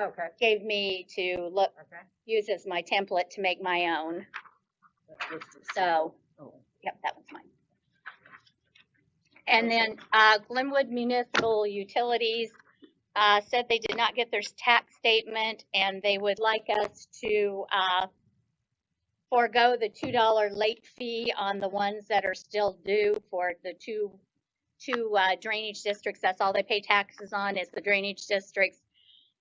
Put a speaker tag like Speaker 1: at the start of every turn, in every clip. Speaker 1: Okay,
Speaker 2: gave me to look,
Speaker 1: okay.
Speaker 2: use as my template to make my own.
Speaker 1: That list is-
Speaker 2: So,
Speaker 1: oh,
Speaker 2: yep, that was mine. And then, uh, Glenwood Municipal Utilities, uh, said they did not get their tax statement and they would like us to, uh, forego the two dollar late fee on the ones that are still due for the two, two, uh, drainage districts. That's all they pay taxes on is the drainage districts.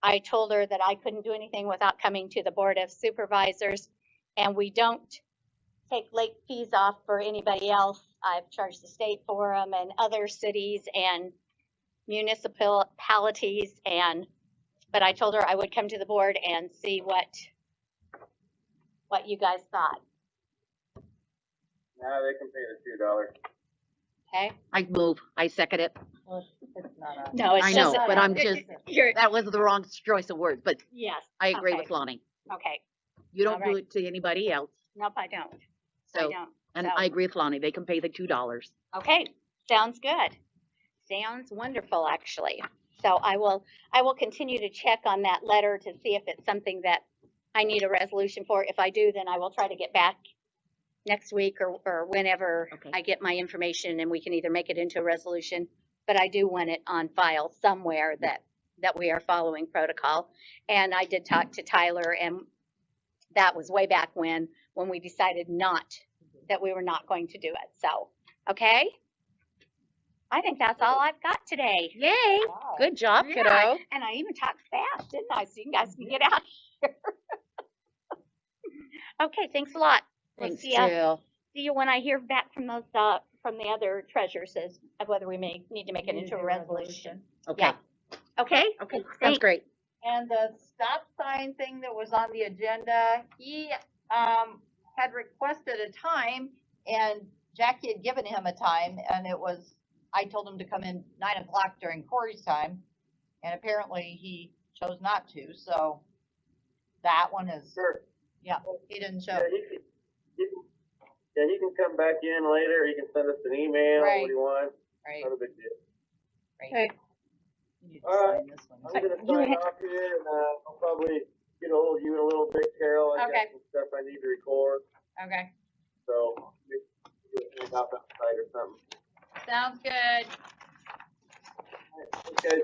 Speaker 2: I told her that I couldn't do anything without coming to the Board of Supervisors. And we don't take late fees off for anybody else. I've charged the state for them and other cities and municipalities and, but I told her I would come to the board and see what, what you guys thought,
Speaker 3: No, they can pay the two dollars.
Speaker 2: okay?
Speaker 4: I move, I second it.
Speaker 1: well, it's- it's not on.
Speaker 2: No, it's
Speaker 4: I
Speaker 2: just.
Speaker 4: know,
Speaker 2: a-
Speaker 4: but I'm
Speaker 2: it-
Speaker 4: just-
Speaker 2: it- You're,
Speaker 4: That was the wrong choice of words, but
Speaker 2: yes,
Speaker 4: I agree
Speaker 2: Okay.
Speaker 4: with Lonnie.
Speaker 2: okay.
Speaker 4: You don't do
Speaker 2: Alright.
Speaker 4: it to anybody else,
Speaker 2: Nope, I don't. I
Speaker 4: so,
Speaker 2: don't.
Speaker 4: and
Speaker 2: so-
Speaker 4: I agree with Lonnie, they can pay the two dollars.
Speaker 2: Okay, sounds good. Sounds wonderful, actually. So I will, I will continue to check on that letter to see if it's something that I need a resolution for. If I do, then I will try to get back next week or, or whenever
Speaker 4: Okay.
Speaker 2: I get my information and we can either make it into a resolution. But I do want it on file somewhere that, that we are following protocol. And I did talk to Tyler and that was way back when, when we decided not, that we were not going to do it. So, okay? I think that's all I've got today.
Speaker 4: Yay,
Speaker 1: Wow.
Speaker 4: good job,
Speaker 2: Yeah.
Speaker 4: kiddo.
Speaker 2: And I even talked fast, didn't I? So you guys can get out here. Okay, thanks a lot. We'll
Speaker 4: Thanks,
Speaker 2: see ya.
Speaker 4: Jill.
Speaker 2: See you when I hear back from those, uh, from the other treasurers as, of whether we may need to make it
Speaker 1: Need
Speaker 2: into
Speaker 1: to
Speaker 2: a
Speaker 1: do
Speaker 2: resolution.
Speaker 4: Okay,
Speaker 2: Okay?
Speaker 4: okay,
Speaker 2: Thanks.
Speaker 4: that's great.
Speaker 1: And the stop sign thing that was on the agenda, he, um, had requested a time and Jackie had given him a time and it was, I told him to come in nine o'clock during Corey's time. And apparently he chose not to, so that one is,
Speaker 3: Sure,
Speaker 1: yeah, he didn't show.
Speaker 3: yeah,
Speaker 2: Oh.
Speaker 3: he can, he can, yeah, he can come back in later, he can send us an email,
Speaker 1: Right.
Speaker 3: what he wants,
Speaker 1: Right,
Speaker 3: not a big deal.
Speaker 1: right.
Speaker 2: Hey.
Speaker 1: You need
Speaker 3: All
Speaker 1: to
Speaker 3: right.
Speaker 1: sign this one.
Speaker 3: I'm
Speaker 2: But
Speaker 3: gonna
Speaker 2: you
Speaker 3: sign
Speaker 2: had-
Speaker 3: off here and, uh, I'll probably get ahold of you in a little bit, Carol, I
Speaker 2: Okay.
Speaker 3: got some stuff I need to record,
Speaker 1: Okay,
Speaker 3: so. we can do it Outside or something.
Speaker 1: sounds good.
Speaker 3: Okay,